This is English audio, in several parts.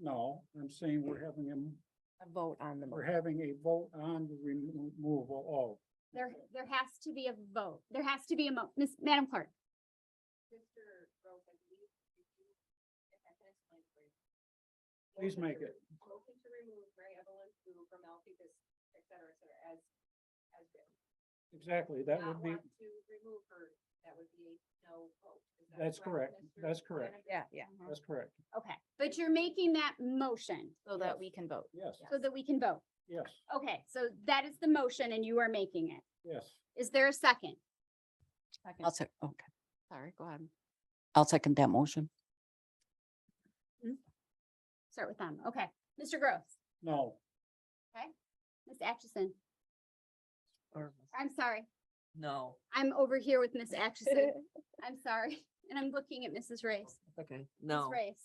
no, I'm saying we're having a, a vote on the we're motion. having a vote on the removal There, there has to be a vote. There has to be a mo, Miss, Madam Clerk. Mr. Rose, I believe if you, if I can explain for you. Please Motion make to it. re- Motion to remove Mary Evelyn Fu from LPPIS, et cetera, et cetera, as, as written. of, exactly, that would Not be, want To remove her, that would be a no vote. Is that That's correct. Mr. That's correct. Flanagan? Yeah, yeah, Uh-huh. that's correct, Okay, but you're making that motion so that we can vote. yes, so that we can vote. yes, Okay, so that is the motion and you are making it. yes. Is there a second? Second. I'll sec, oh, okay, Sorry, go ahead. I'll second that motion. Start with them. Okay. Mr. Gross, No, Miss Atchison, I'm sorry. No, I'm over here with Miss Atchison. I'm sorry. And I'm looking at Mrs. Race. okay, Ms. no. Race.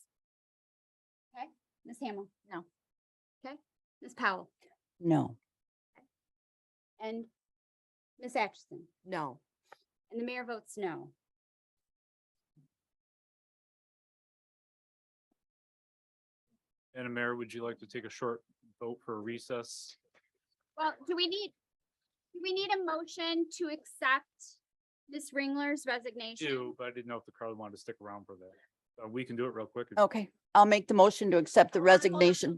Okay, Ms. Hamel, no. Okay, Ms. Powell No, and Ms. Atchison. No, And the mayor votes no. Madam Mayor, would you like to take a short vote for recess? Well, do we need, do we need a motion to accept Ms. Ringler's resignation? Do, but I didn't know if the crowd wanted to stick around for that. Uh, We can do it real quick. if- okay, I'll make the motion to accept the resignation.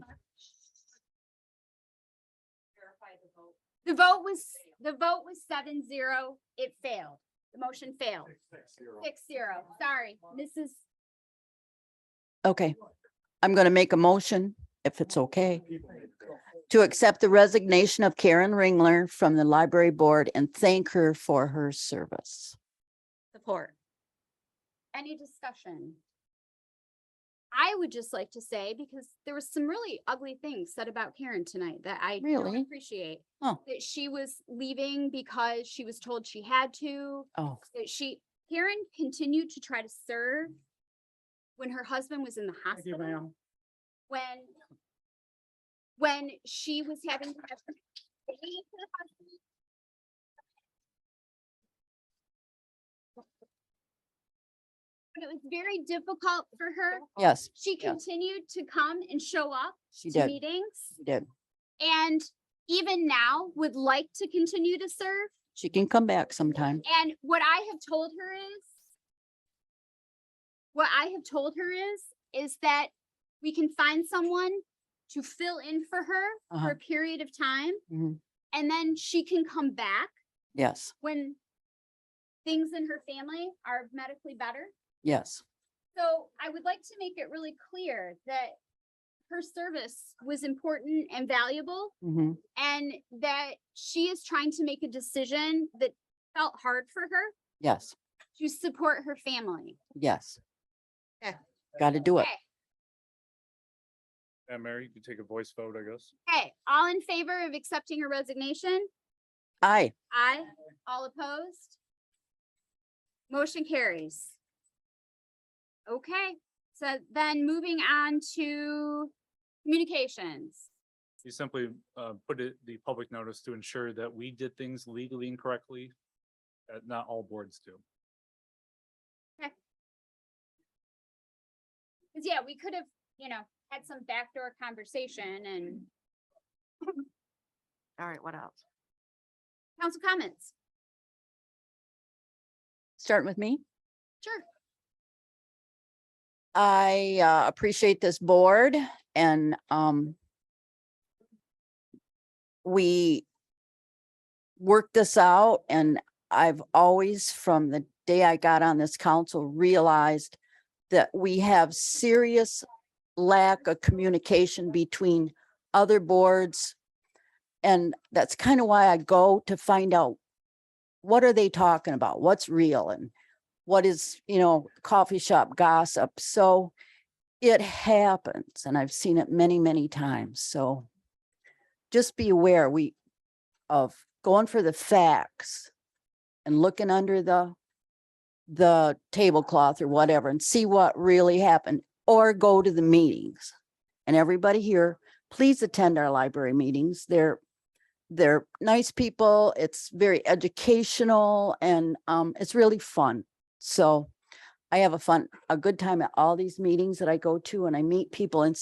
Verify the vote. The vote was, the vote was seven zero. It failed. The motion failed. Six zero. Sorry, Mrs. Okay, I'm going to make a motion, if it's okay, people need to go. to accept the resignation of Karen Ringler from the library board and thank her for her service. support. Any discussion? I would just like to say, because there was some really ugly things said about Karen tonight that I don't Really? appreciate. Oh. That she was leaving because she was told she had to, Oh, that she, Karen continued to try to serve when her husband was in the Thank you, hospital, ma'am. when when she was having to have her baby for the husband, But it was very difficult for her. yes, She Yeah. continued to come and show up she to did, meetings she did. and even now would like to continue to serve. She can come back sometime. And what I have told her is, what I have told her is, is that we can find someone to fill in for her for a Uh-huh. period of time, Mhm, and then she can come back Yes, when things in her family are medically better. yes, So I would like to make it really clear that her service was important and valuable mhm, and that she is trying to make a decision that felt hard for her yes, to support her family. yes. Okay. Got to do it. Okay. Madam Mayor, you can take a voice vote, I guess. Okay, all in favor of accepting her resignation? Aye, Aye. All opposed? Motion carries. Okay, so then moving on to communications. You simply uh, put it, the public notice to ensure that we did things legally and correctly. That uh, not all boards do. Cause yeah, we could have, you know, had some backdoor conversation and All right, what else? council comments. starting with me. Sure. I uh, appreciate this board and um we worked this out and I've always, from the day I got on this council, realized that we have serious lack of communication between other boards. And that's kind of why I go to find out what are they talking about? What's real and what is, you know, coffee shop gossip. So it happens and I've seen it many, many times. So just be aware we of going for the facts and looking under the the tablecloth or whatever and see what really happened or go to the meetings. And everybody here, please attend our library meetings. They're they're nice people. It's very educational and um it's really fun. So I have a fun, a good time at all these meetings that I go to and I meet people and